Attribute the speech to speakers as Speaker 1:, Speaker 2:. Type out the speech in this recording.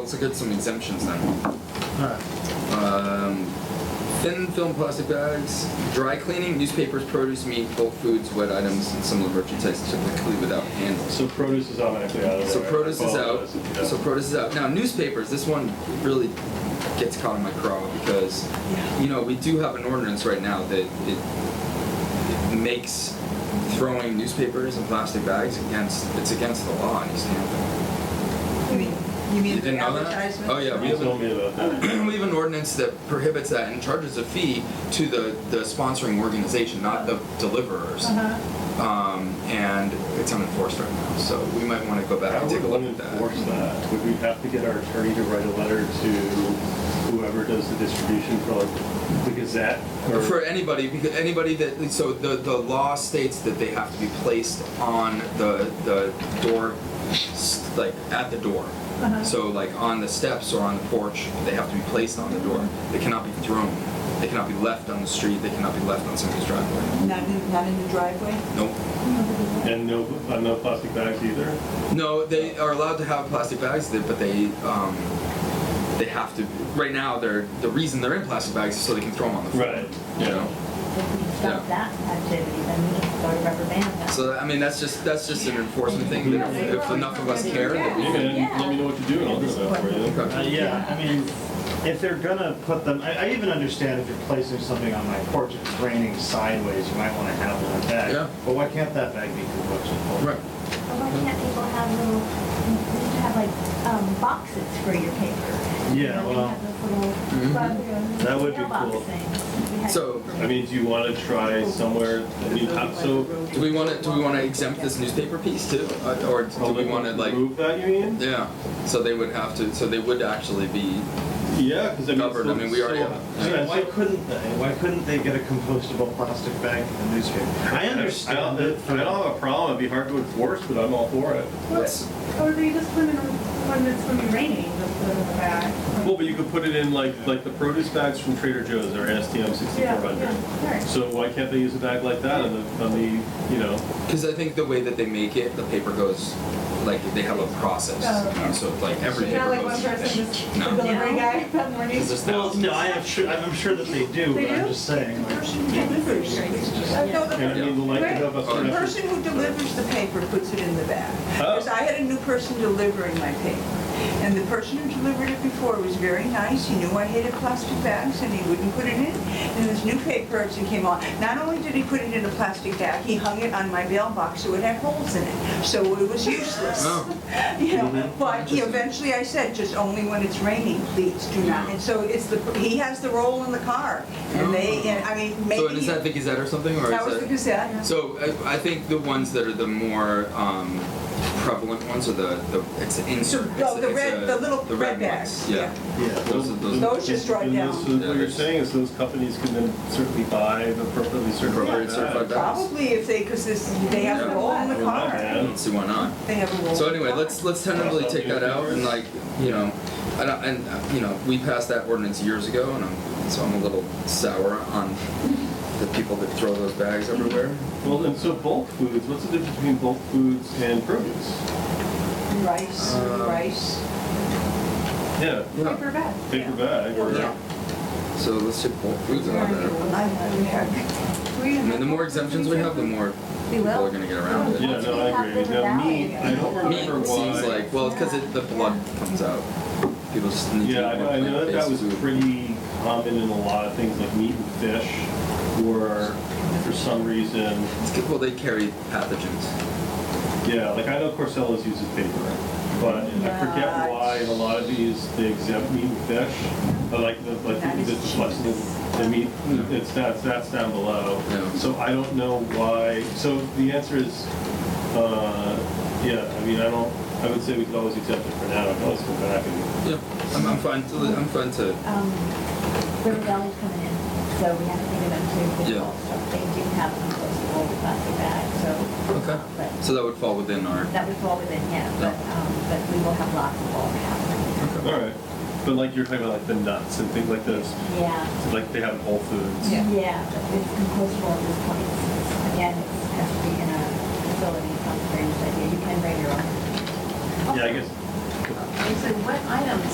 Speaker 1: let's look at some exemptions then.
Speaker 2: Alright.
Speaker 1: Um, thin film plastic bags, dry cleaning, newspapers, produce, meat, bulk foods, wet items, and similar merchandise typically without handles.
Speaker 3: So produce is automatically out of there.
Speaker 1: So produce is out.
Speaker 3: Apologize if you don't.
Speaker 1: So produce is out. Now newspapers. This one really gets caught in my craw because you know we do have an ordinance right now that it, it makes throwing newspapers and plastic bags against it's against the law in East Hampton.
Speaker 4: You mean, you mean
Speaker 1: You didn't
Speaker 4: the
Speaker 1: know that?
Speaker 4: advertisement?
Speaker 1: Oh yeah, we
Speaker 3: You
Speaker 1: have,
Speaker 3: told me about that.
Speaker 1: an, we have an ordinance that prohibits that and charges a fee to the the sponsoring organization, not the deliverers.
Speaker 4: Uh-huh.
Speaker 1: Um, and it's unenforced right now, so we might want to go back
Speaker 3: How
Speaker 1: and
Speaker 3: would
Speaker 1: take a look
Speaker 3: one
Speaker 1: at that.
Speaker 3: enforce that? Would we have to get our attorney to write a letter to whoever does the distribution for like the Gazette? or-
Speaker 1: For anybody, because anybody that, so the, the law states that they have to be placed on the, the door, s- like, at the door.
Speaker 4: Uh-huh.
Speaker 1: So like on the steps or on the porch, they have to be placed on the door. They cannot be thrown. They cannot be left on the street. They cannot be left on somebody's driveway.
Speaker 4: Not in, not in the driveway?
Speaker 1: Nope.
Speaker 3: And no, uh, no plastic bags either?
Speaker 1: No, they are allowed to have plastic bags, they- but they, um, they have to, right now, they're, the reason they're in plastic bags is so they can throw them on the floor.
Speaker 3: Right.
Speaker 1: You know?
Speaker 5: If we
Speaker 1: Yeah.
Speaker 5: stop that activity, then we can go to rubber band now.
Speaker 1: So I mean, that's just that's just an enforcement thing. That if, if enough of us care, that we
Speaker 3: You
Speaker 1: can.
Speaker 3: can let me know what you do and I'll do that for you.
Speaker 2: Uh,
Speaker 1: Okay.
Speaker 2: yeah, I mean, if they're gonna put them, I, I even understand if you're placing something on my porch, it's raining sideways, you might wanna have one bag.
Speaker 1: Yeah.
Speaker 2: But why can't that bag be compostable?
Speaker 1: Right.
Speaker 5: But why can't people have little, you need to have like, um, boxes for your paper?
Speaker 2: Yeah,
Speaker 5: You know,
Speaker 2: well-
Speaker 5: They have those little
Speaker 1: Mhm.
Speaker 5: rubber
Speaker 3: That would be
Speaker 5: mailbox
Speaker 3: cool.
Speaker 5: things. We had-
Speaker 1: So-
Speaker 3: I mean, do you want to try somewhere, I mean, how- so.
Speaker 1: Do we want to do we want to exempt this newspaper piece too, Uh, or do we want to like?
Speaker 3: Move that, you mean?
Speaker 1: Yeah. So they would have to. So they would actually be.
Speaker 3: Yeah, because I mean.
Speaker 1: Covered, I mean, we already
Speaker 3: so-
Speaker 1: have-
Speaker 2: I mean,
Speaker 3: Yeah,
Speaker 2: why
Speaker 3: so-
Speaker 2: couldn't they, why couldn't they get a compostable plastic bag in the newspaper? I
Speaker 3: don't-
Speaker 2: understand it
Speaker 3: I don't have a problem, it'd be hard to enforce, but I'm all for it.
Speaker 1: Let's-
Speaker 6: However, you just put it in when it's gonna be raining, just put it in the bag.
Speaker 3: Well, but you could put it in like, like the produce bags from Trader Joe's or STM sixty-four
Speaker 6: Yeah, yeah,
Speaker 3: hundred.
Speaker 6: right.
Speaker 3: So why can't they use a bag like that on the, on the, you know,
Speaker 1: Because I think the way that they make it, the paper goes, like they have a process. you know, So like every
Speaker 6: Not
Speaker 1: paper
Speaker 6: like one
Speaker 1: goes.
Speaker 6: person just, the
Speaker 1: No.
Speaker 6: delivery guy, that morning.
Speaker 1: 'Cause there's
Speaker 2: Well,
Speaker 1: thousands.
Speaker 2: no, I am sure, I'm sure that they do,
Speaker 6: They
Speaker 2: but I'm
Speaker 6: do?
Speaker 2: just saying, like,
Speaker 6: Uh, no, the-
Speaker 3: and I mean, the likelihood of us.
Speaker 1: Yeah.
Speaker 4: The
Speaker 3: not-
Speaker 4: person who delivers the paper puts it in the bag.
Speaker 3: Oh.
Speaker 4: Because I had a new person delivering my paper. And the person who delivered it before was very nice. He knew I hated plastic bags and he wouldn't put it in. And this new paper person came on. Not only did he put it in a plastic bag, he hung it on my mailbox so it had holes in it. So it was useless.
Speaker 1: Oh.
Speaker 4: You know, but he eventually I said, just only when it's raining, please do not. And so it's the, he has the roll in the car. And they, and I mean, maybe.
Speaker 1: Oh. So is that the Gazette or something, or
Speaker 4: That
Speaker 1: is
Speaker 4: was
Speaker 1: that?
Speaker 4: the Gazette.
Speaker 1: So I, I think the ones that are the more um, prevalent ones are the, the it's an insert.
Speaker 4: So,
Speaker 1: it's,
Speaker 4: oh, the
Speaker 1: it's
Speaker 4: red-
Speaker 1: a-
Speaker 4: the little red
Speaker 1: ones,
Speaker 4: bags,
Speaker 1: Yeah.
Speaker 2: yeah.
Speaker 1: Those are those.
Speaker 4: Those just drive
Speaker 3: And
Speaker 4: down.
Speaker 3: those- So what you're saying is those companies can then certainly buy the appropriately certified
Speaker 1: Appropriate certified
Speaker 3: bags.
Speaker 1: bags.
Speaker 4: Probably if they, because this, they have a roll in the
Speaker 3: Well, not
Speaker 4: car.
Speaker 1: I
Speaker 3: bad.
Speaker 1: don't see why not.
Speaker 4: They have a roll.
Speaker 1: So
Speaker 4: in the
Speaker 1: anyway,
Speaker 4: car.
Speaker 1: let's let's tentatively take that out and like you know, and, I- and uh, you know we passed that ordinance years ago, and I'm so I'm a little sour on the people that throw those bags everywhere.
Speaker 3: Well, and so bulk foods, what's the difference between bulk foods and produce?
Speaker 4: Rice,
Speaker 1: Um,
Speaker 4: rice.
Speaker 3: Yeah,
Speaker 1: Yeah.
Speaker 6: Paper bag.
Speaker 3: paper bag or.
Speaker 4: Yeah.
Speaker 1: So let's take bulk foods out of there.
Speaker 6: We
Speaker 1: I mean, the more
Speaker 6: have-
Speaker 1: exemptions we have, the more
Speaker 5: We
Speaker 1: people
Speaker 5: will.
Speaker 1: are gonna get around it.
Speaker 3: Yeah, no, I agree. Now, meat, I don't
Speaker 1: Meat
Speaker 3: remember why.
Speaker 1: seems like well, because the blood comes out. People just need
Speaker 3: Yeah,
Speaker 1: to eat
Speaker 3: I
Speaker 1: more
Speaker 3: I know that that was
Speaker 1: plant-based food.
Speaker 3: pretty common in a lot of things, like meat and fish, were, for some reason,
Speaker 1: It's good, well, they carry pathogens.
Speaker 3: yeah, like I know Corsellas uses paper, but I forget
Speaker 4: Right.
Speaker 3: why in a lot of these, they exempt meat and fish, but like the, like
Speaker 4: That
Speaker 3: the,
Speaker 4: is
Speaker 3: the flesh, the the meat,
Speaker 1: Yeah.
Speaker 3: it's, that's, that's down below.
Speaker 1: Yeah.
Speaker 3: So I don't know why, so the answer is, uh, yeah, I mean, I don't, I would say we could always exempt it for now, I could always go back and,
Speaker 1: Yeah, I'm, I'm fine. To, I'm fine to.
Speaker 5: Um, River Valley's coming in, so we have to think about too,
Speaker 1: Yeah.
Speaker 5: because also they do have compostable plastic bags, so.
Speaker 1: Okay.
Speaker 5: But
Speaker 1: So that would fall within our.
Speaker 5: that would fall within, yeah,
Speaker 1: Yeah.
Speaker 5: but, um, but we will have lots of bulk happening.
Speaker 3: all right. But like you're talking about like the nuts and things like those,
Speaker 5: Yeah,
Speaker 3: like they have in Whole Foods.
Speaker 4: Yeah.
Speaker 5: yeah, but it's compostable at this point, It's- it's- again, it has to be in a facility, it's not a strange idea, you can bring your own.
Speaker 3: Yeah, I guess
Speaker 7: They said, what items